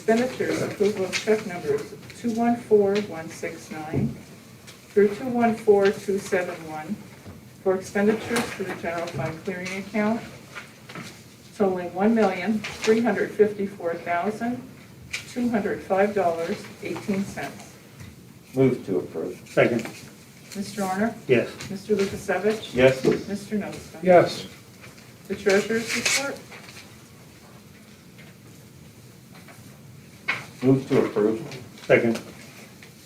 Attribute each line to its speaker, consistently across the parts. Speaker 1: Expenditures, approval of check numbers 214169 through 214271 for expenditures for the general fund clearing account totaling $1,354,205.18.
Speaker 2: Move to approve.
Speaker 3: Second.
Speaker 1: Mr. Honor?
Speaker 3: Yes.
Speaker 1: Mr. Lukasevich?
Speaker 2: Yes.
Speaker 1: Mr. Nostine?
Speaker 4: yes,
Speaker 1: The treasurer's report?
Speaker 2: Move to approve.
Speaker 3: Second.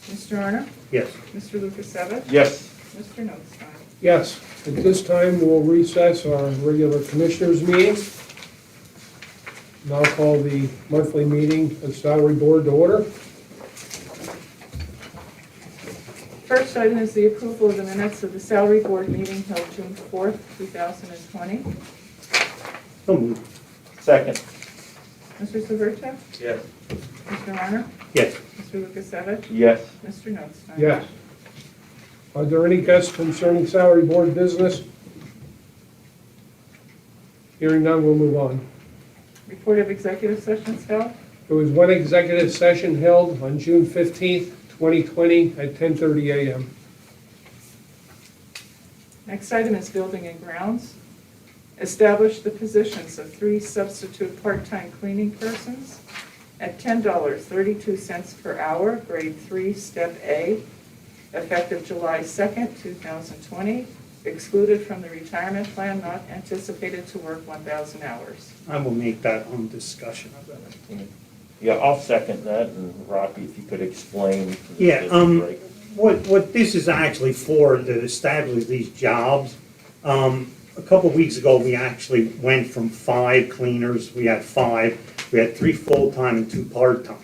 Speaker 1: Mr. Honor?
Speaker 3: Yes.
Speaker 1: Mr. Lukasevich?
Speaker 2: Yes.
Speaker 1: Mr. Nostine?
Speaker 4: yes. At this time, we'll recess our regular commissioners meeting. Now call the monthly meeting of salary board to order.
Speaker 1: First item is the approval of the minutes of the salary board meeting held June 4th, 2020.
Speaker 3: So moved.
Speaker 2: Second.
Speaker 1: Mr. Severcek?
Speaker 2: Yes.
Speaker 1: Mr. Honor?
Speaker 3: Yes.
Speaker 1: Mr. Lukasevich?
Speaker 2: Yes.
Speaker 1: Mr. Nostine?
Speaker 4: Yes. Are there any cuts concerning salary board business? Hearing none, we'll move on.
Speaker 1: Report of executive sessions held.
Speaker 4: There was one executive session held on June 15th, 2020 at 10:30 a.m.
Speaker 1: Next item is building and grounds. Establish the positions of three substitute part-time cleaning persons at $10.32 per hour, grade three, step A, effective July 2nd, 2020, excluded from the retirement plan, not anticipated to work 1,000 hours.
Speaker 3: I will make that on discussion of that.
Speaker 2: Yeah, I'll second that, and Rocky, if you could explain. to the
Speaker 3: Yeah, um,
Speaker 2: district,
Speaker 3: What, what this is actually for, to establish these jobs, um, a couple of weeks ago, we actually went from five cleaners, we had five, we had three full-time and two part-time.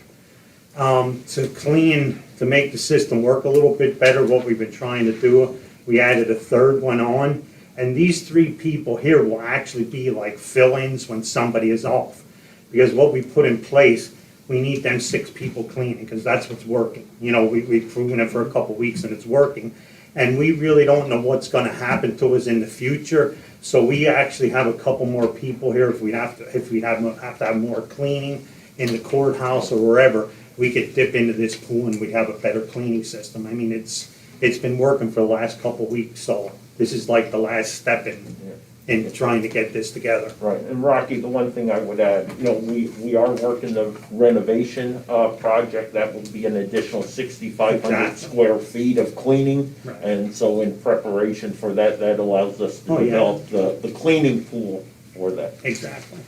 Speaker 3: Um, to clean, to make the system work a little bit better, what we've been trying to do, we added a third one on. And these three people here will actually be like fill-ins when somebody is off. Because what we put in place, we need them six people cleaning, because that's what's working. You know, we, we've proven it for a couple weeks and it's working. And we really don't know what's gonna happen to us in the future. So we actually have a couple more people here if we have to, if we have, have to have more cleaning in the courthouse or wherever, we could dip into this pool and we'd have a better cleaning system. I mean, it's, it's been working for the last couple weeks, so this is like the last step in,
Speaker 2: yeah.
Speaker 3: in trying to get this together.
Speaker 2: Right, and Rocky, the one thing I would add, you know, we, we are working the renovation, uh, project, that will be an additional sixty-five hundred
Speaker 3: Exactly.
Speaker 2: square feet of cleaning.
Speaker 3: Right.
Speaker 2: And so in preparation for that, that allows us to
Speaker 3: Oh, yeah.
Speaker 2: develop the, the cleaning pool for that.
Speaker 3: Exactly.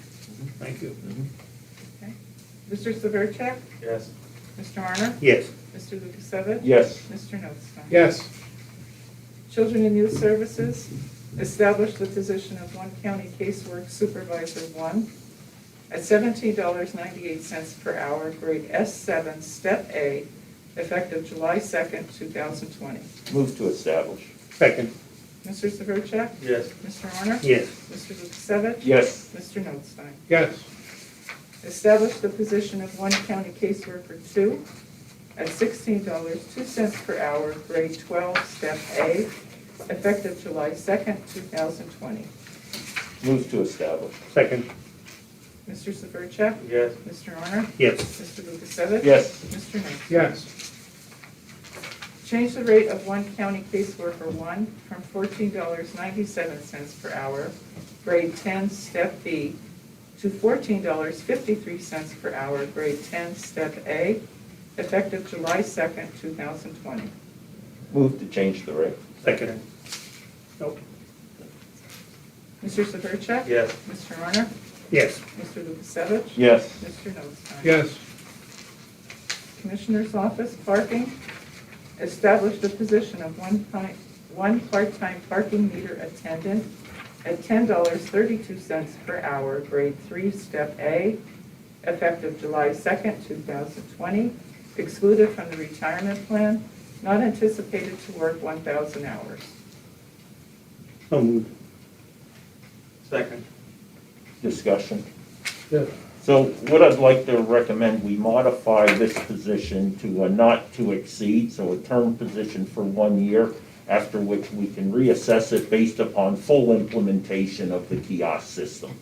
Speaker 3: Thank you.
Speaker 1: Mr. Severcek?
Speaker 2: Yes.
Speaker 1: Mr. Honor?
Speaker 3: Yes,
Speaker 1: Mr. Lukasevich?
Speaker 2: Yes,
Speaker 1: Mr. Nostine?
Speaker 4: Yes,
Speaker 1: Children and Youth Services, establish the position of one county casework supervisor one at seventeen dollars ninety-eight cents per hour, grade S seven, step A, effective July second, two thousand twenty.
Speaker 2: move to establish.
Speaker 3: second.
Speaker 1: Mr. Severcek?
Speaker 2: Yes.
Speaker 1: Mr. Honor?
Speaker 3: Yes,
Speaker 1: Mr. Lukasevich?
Speaker 2: Yes,
Speaker 1: Mr. Notstein?
Speaker 4: yes,
Speaker 1: Establish the position of one county caseworker two at sixteen dollars, two cents per hour, grade twelve, step A, effective July second, two thousand twenty.
Speaker 2: move to establish.
Speaker 3: second.
Speaker 1: Mr. Severcek?
Speaker 2: Yes.
Speaker 1: Mr. Honor?
Speaker 3: Yes,
Speaker 1: Mr. Lukasevich?
Speaker 2: Yes,
Speaker 1: Mr. Notstein?
Speaker 4: yes,
Speaker 1: Change the rate of one county caseworker one from fourteen dollars ninety-seven cents per hour, grade ten, step B, to fourteen dollars fifty-three cents per hour, grade ten, step A, effective July second, two thousand twenty.
Speaker 2: move to change the rate.
Speaker 3: second. Nope.
Speaker 1: Mr. Severcek?
Speaker 2: Yes.
Speaker 1: Mr. Honor?
Speaker 3: Yes,
Speaker 1: Mr. Lukasevich?
Speaker 2: Yes,
Speaker 1: Mr. Notstein?
Speaker 4: yes,
Speaker 1: Commissioner's Office Parking, establish the position of one pi- one part-time parking meter attendant at ten dollars thirty-two cents per hour, grade three, step A, effective July second, two thousand twenty, excluded from the retirement plan, not anticipated to work one thousand hours.
Speaker 3: so moved.
Speaker 5: Second.
Speaker 2: discussion.
Speaker 4: yes.
Speaker 2: So what I'd like to recommend, we modify this position to a not to exceed, so a term position for one year, after which we can reassess it based upon full implementation of the kiosk system.